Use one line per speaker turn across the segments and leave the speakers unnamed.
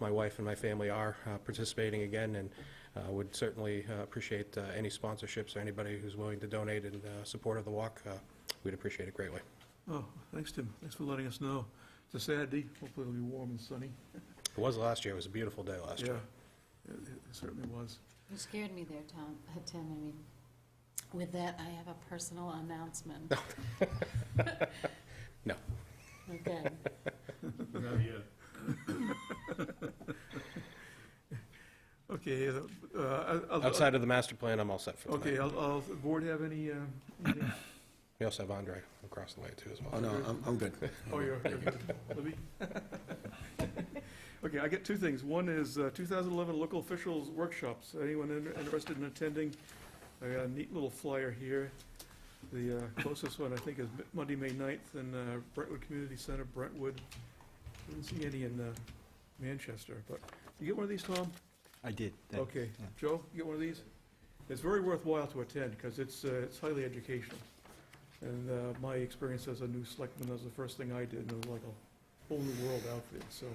my wife and my family are uh, participating again, and uh, would certainly uh, appreciate uh, any sponsorships or anybody who's willing to donate in uh, support of the walk. Uh, We'd appreciate it greatly.
Oh, thanks, Tim. Thanks for letting us know. It's a Saturday. Hopefully it'll be warm and sunny.
It was last year, it was a beautiful day last year.
Yeah, It it certainly was.
You scared me there, Tom, uh, Tim, I mean, with that, I have a personal announcement.
No.
Okay,
Okay, uh, uh, I'll- I'll-
Outside of the master plan, I'm all set for
Okay,
tonight.
I'll, I'll, the board have any, uh, anything?
We also have Andre across the way, too, as well.
Oh, no, I'm, I'm good.
Oh, you're, you're good. Let me- Okay, I get two things. One is uh, 2011 local officials workshops. Anyone in- interested in attending? I got a neat little flyer here. The uh, closest one, I think, is Mi- Monday, May 9th in uh, Brentwood Community Center, Brentwood. Didn't see any in uh, Manchester, but you get one of these, Tom?
I did.
Okay.
yeah.
Joe, you get one of these? It's very worthwhile to attend because it's, uh, it's highly educational. And uh, my experience as a new selectman, that was the first thing I did, and it was like a whole new world out there. So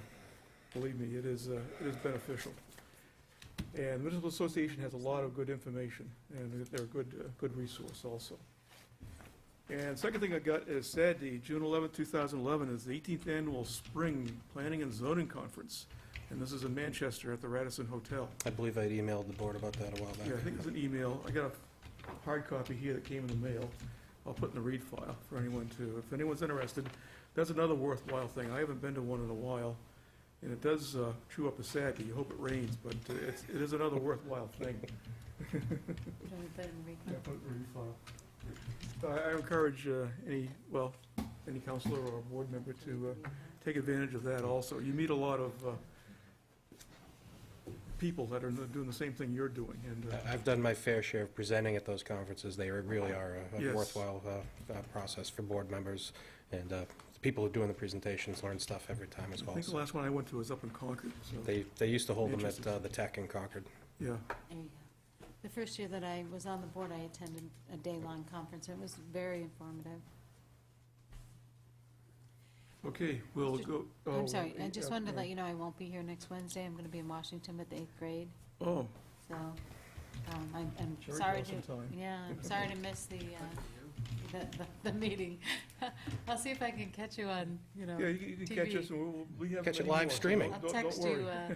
believe me, it is, uh, it is beneficial. And the Municipal Association has a lot of good information, and they're a good, uh, good resource also. And second thing I got is Saturday, June 11, 2011, is the 18th Annual Spring Planning and Zoning Conference. And this is in Manchester at the Radisson Hotel.
I believe I'd emailed the board about that a while
Yeah, I
back.
think it's an email. I got a hard copy here that came in the mail. I'll put in the read file for anyone to, if anyone's interested. That's another worthwhile thing. I haven't been to one in a while, and it does uh, chew up a sack, and you hope it rains, but uh, it's, it is another worthwhile thing.
Don't we put it in the
Yeah,
record?
put it in the file. So I I encourage uh, any, well, any counselor or board member to uh, take advantage of that also. You meet a lot of uh, people that are doing the same thing you're doing, and uh,
I- I've done my fair share of presenting at those conferences. They really are a- a
Yes.
worthwhile uh, uh, process for board members, and uh, the people who are doing the presentations learn stuff every time as
I
well.
think the
So
last one I went to was up in Concord, so,
They, they used to hold them at
Interesting.
uh, the Tech in Concord.
yeah.
There you go. The first year that I was on the board, I attended a day-long conference, and it was very informative.
Okay, we'll
Just-
go. oh,
I'm sorry, I just wanted to let you know I won't be here next Wednesday, I'm gonna be in Washington at the eighth grade,
Oh,
so, um, I'm, I'm
Sherry
sorry
got
to.
some time.
Yeah, I'm sorry to miss the, uh, the, the- the meeting. I'll see if I can catch you on, you know.
yeah, you can- you can catch
TV.
us, and we'll, we have.
Catch it
many
live
more, so
streaming.
don't-
I'll
don't- don't
text you
worry.
uh,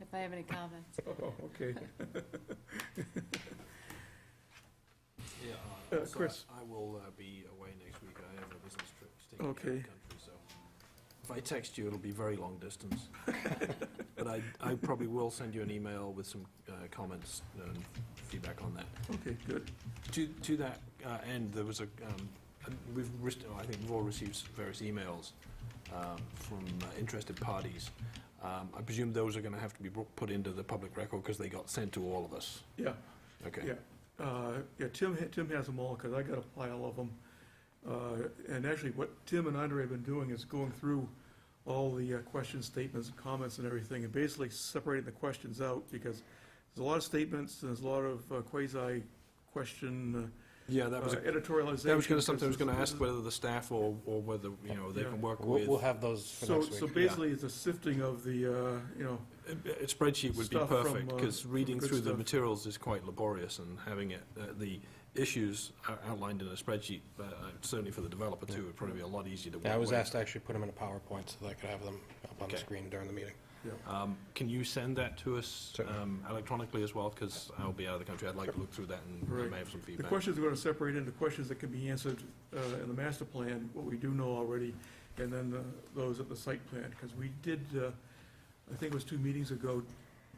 if I have any comments.
Oh, okay.
Yeah,
Uh,
uh, also,
Chris.
I I will uh, be away next week. I have a business trip It's taking me out of
Okay.
the country, so if I text you, it'll be very long distance. But I, I probably will send you an email with some uh, comments and feedback on that.
Okay, good.
To, to that uh, end, there was a, um, we've, rec- I think we've all received various emails um, from uh, interested parties. Um, I presume those are going to have to be bro- put into the public record because they got sent to all of us.
Yeah,
Okay.
yeah. Uh, Yeah, Tim, ha- Tim has them all, because I got a pile of them. Uh, And actually, what Tim and Andre have been doing is going through all the uh, question statements, and comments and everything, and basically separating the questions out, because there's a lot of statements, and there's a lot of uh, quasi-question
Yeah,
uh,
that was a
editorialization.
That was gonna, something I was
because
gonna
this
ask
is-
whether the staff or, or whether, you know, they
Yeah.
can work
We'll, we'll
with,
have those for
So,
next week.
so basically, it's a sifting of the, uh, you know,
a a spreadsheet would be
Stuff from,
perfect,
uh,
because
from
reading
good
through the
stuff.
materials is quite laborious and having it, uh, the issues are outlined in a spreadsheet, uh, uh, certainly for the developer too, would probably be a lot easier to work with.
Yeah, I was asked to actually put them in a PowerPoint so that I could have them up on the
Okay.
screen during the meeting.
Um, can you send that to us,
Certainly.
um, electronically as well, because I'll be out of the country, I'd like to look through that and I
Right.
may have some
the
feedback.
questions we're gonna separate into questions that can be answered, uh, in the master plan, what we do know already, and then the, those at the site plan, because we did, uh, I think it was two meetings ago,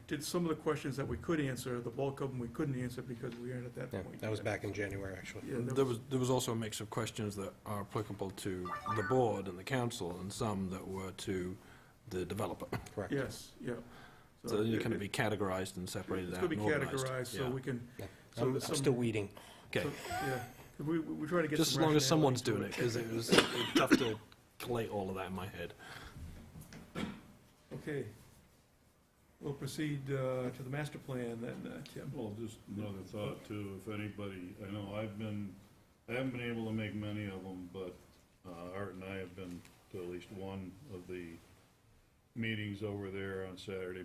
did some of the questions that we could answer, the bulk of them we couldn't answer because we weren't at that
Yeah,
point.
that was back in January, actually.
Yeah,
There was, there was also a mix of questions that are applicable to the board and the council, and some that were to the developer.
Correct.
Yes, yeah.
So you
it-
can
it-
be categorized and separated
It's
out
gonna be
and organized.
categorized, so
Yeah.
we can, so
I'm I'm
some-
still weeding.
Okay,
so- yeah, 'Cause we, we we try to get some
just as long as
rationality
someone's
to
doing it, because it was it's tough to collate all of that in my head.
Okay. We'll proceed uh, to the master plan then, uh, Tim.
Well, just another thought too, if anybody, I know I've been, I haven't been able to make many of them, but uh, Art and I have been to at least one of the meetings over there on Saturday